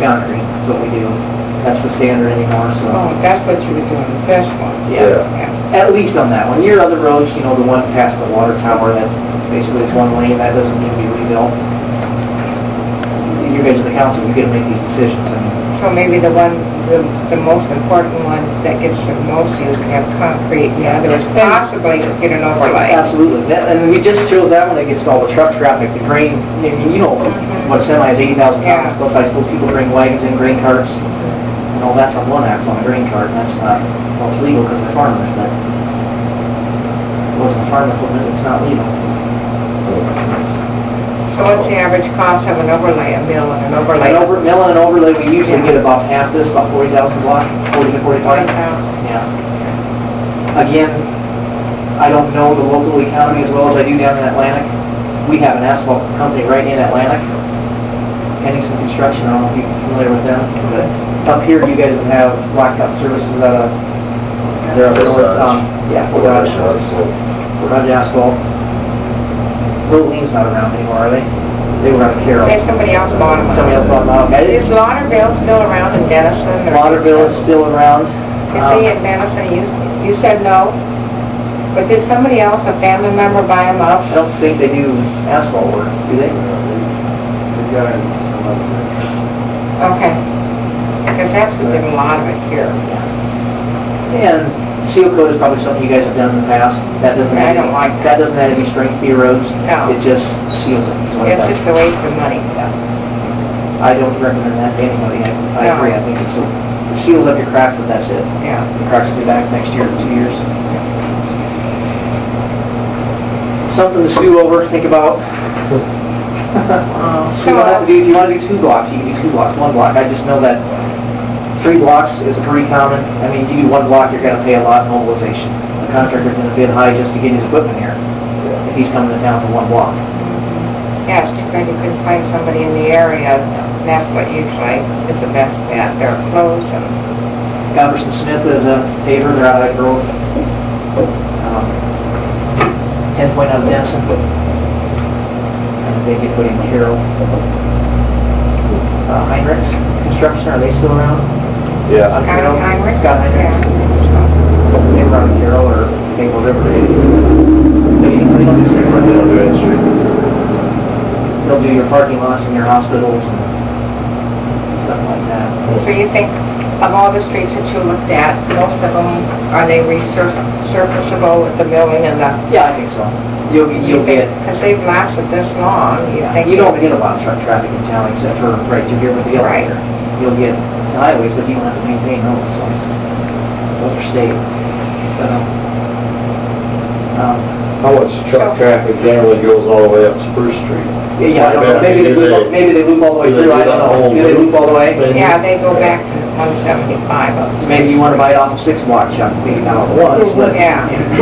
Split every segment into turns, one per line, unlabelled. concrete, that's what we do. That's the standard anymore, so,
Oh, that's what you were doing, with this one.
yeah.
Yeah.
At least on that one. Your other roads, you know, the one past the water tower, that basically is one lane, that doesn't need to be rebuilt. You guys are the council, you gotta make these decisions, I mean,
So maybe the one, the, the most important one that gets the most use can have concrete, and the others possibly get an overlay.
absolutely. That, and we just chose that one against all the truck traffic, the grain, I mean, you know, what a semi is eighty thousand
Yeah.
pounds, plus I suppose people bring wagons and grain carts, and all that's on one axle on a grain cart, and that's not, well, it's legal because they're farmers, but it wasn't farm equipment, it's not legal.
So what's the average cost of an overlay, a mill and an overlay?
An over, mill and overlay, we usually get about half this, about forty thousand block, forty to forty-five.
Well,
Yeah. Again, I don't know the local economy as well as I do down in Atlantic. We have an asphalt company right in Atlantic, Henningsen Construction, I don't know if you're familiar with them, but up here, you guys have blacktop services out of, they're up north, um, yeah, Fort Dodge, Fort Dodge Asphalt. Rolene's not around anymore, are they? They were out of Carroll.
If somebody else bought them.
Somebody else bought them out. I didn't-
Is Lauderville still around in Denison? or-
Lauderville is still around.
Is
Um,
he in Madison? You, you said no, but did somebody else, a family member, buy him
I
up?
don't think they do asphalt work, do they?
Okay. Because that's who did a lot of it here.
And seal coat is probably something you guys have done in the past. That doesn't
I
add
don't
any,
like
that doesn't add any strength to your roads.
No.
It just seals it, is what it
It's
does.
just a waste of money.
I don't recommend that to anybody. I- I
No.
agree, I think it's, a- it seals up your cracks, but that's it.
Yeah.
The cracks will be back next year, two years. Something to stew over, think about. You don't have to
Um, So, uh,
do, if you want to do two blocks, you can do two blocks, one block. I just know that three blocks is pretty common. I mean, you do one block, you're gonna pay a lot in mobilization. The contractor's gonna bid high just to get his equipment here, if he's coming to town for one block.
yes, because you couldn't find somebody in the area, and that's what usually is the best bet. They're close and,
Goverson Smith is a paver, they're out of Grove. Ten point out of Denison. And they could put in Carroll. Uh, Heinrichs Construction, are they still around?
Yeah,
Out of Carroll?
Heinrichs?
Scott Heinrichs.
yeah.
They were on Carroll or Maple River. They- they don't do
I
street work.
did Main Street.
They'll do your parking lots and your hospitals and stuff like that.
So you think of all the streets that you looked at, most of them, are they resurfaceable with the milling and the
Yeah, I think so. You'll, you'll get,
Because they've lasted this long, you think...
you don't get a lot of truck traffic in town except for right through here with the
Right.
elevator. You'll get the highways, but you don't have to maintain those, so those are state. But, um, um,
How much truck traffic generally goes all the way up Spruce Street?
Yeah, yeah, I don't know. maybe they loop, maybe they loop all
Oh,
the way
Do they
through,
do
I don't
that whole
know. Do they loop all the way?
loop?
Yeah, they go back to 175 of
So maybe you want to bite off a six block chunk, maybe not a one, but
Yeah.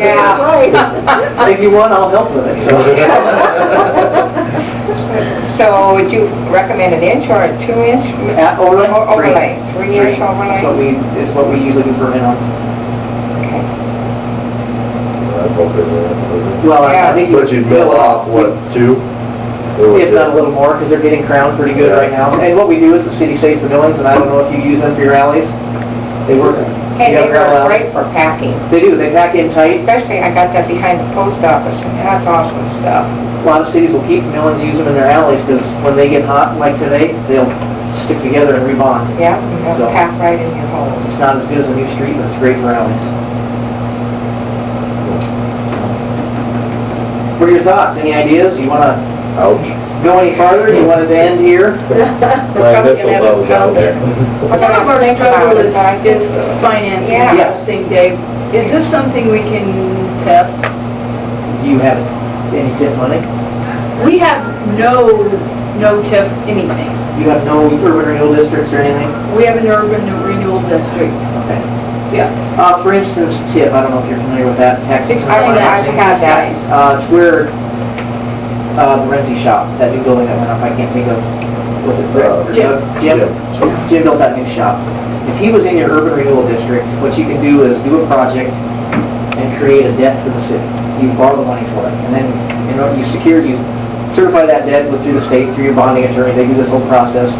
Yeah.
if you want, I'll help with it. so.
So would you recommend an inch or a two-inch?
At overlay?
Or overlay, three-inch
That's what
overlay?
we, is what we usually do for minimum.
Okay.
Well, I- I
Yeah.
think.
But you mill off, what, two? Or
If not a
was
little more, because they're getting crowned pretty good
Yeah.
right now. And what we do is the city saves the millings, and I don't know if you use them for your alleys. They work.
Hey,
You
they
have
were
gravel alleys?
great for packing,
They do, they pack in tight.
especially I got that behind the post office, and that's awesome stuff.
A lot of cities will keep millings, use them in their alleys, because when they get hot, like today, they'll stick together and rebond.
Yeah, and they'll
So-
pack right in your holes.
It's not as good as a new street, but it's great for alleys. What are your thouts? Any ideas? You want to
it- Ouch.
go any farther? You want it to end here?
My initial thought was out there.
But
One of our
I think about
struggle
it,
is,
but I think-
is financing,
Yeah.
I think, Dave. Is this something we can test?
Do you have any tip money?
We have no, no TIF anything.
You have no urban renewal districts or anything?
We have an urban renewal district.
Okay.
Yes.
Uh, for instance, TIP, I don't know if you're familiar with that, tax
I
exempt
Explain that
I've
to
financing.
had that.
guys.
Uh, it's where, uh, the Renzi shop, that new building that went up, I can't think of, was it Rick? or
Jim.
Jim?
Jim.
Jim built that new shop. If he was in your urban renewal district, what you can do is do a project and create a debt for the city. You borrow the money for it, and then, you know, you secure, you certify that debt with, through the state, through your bonding attorney, they do this whole process.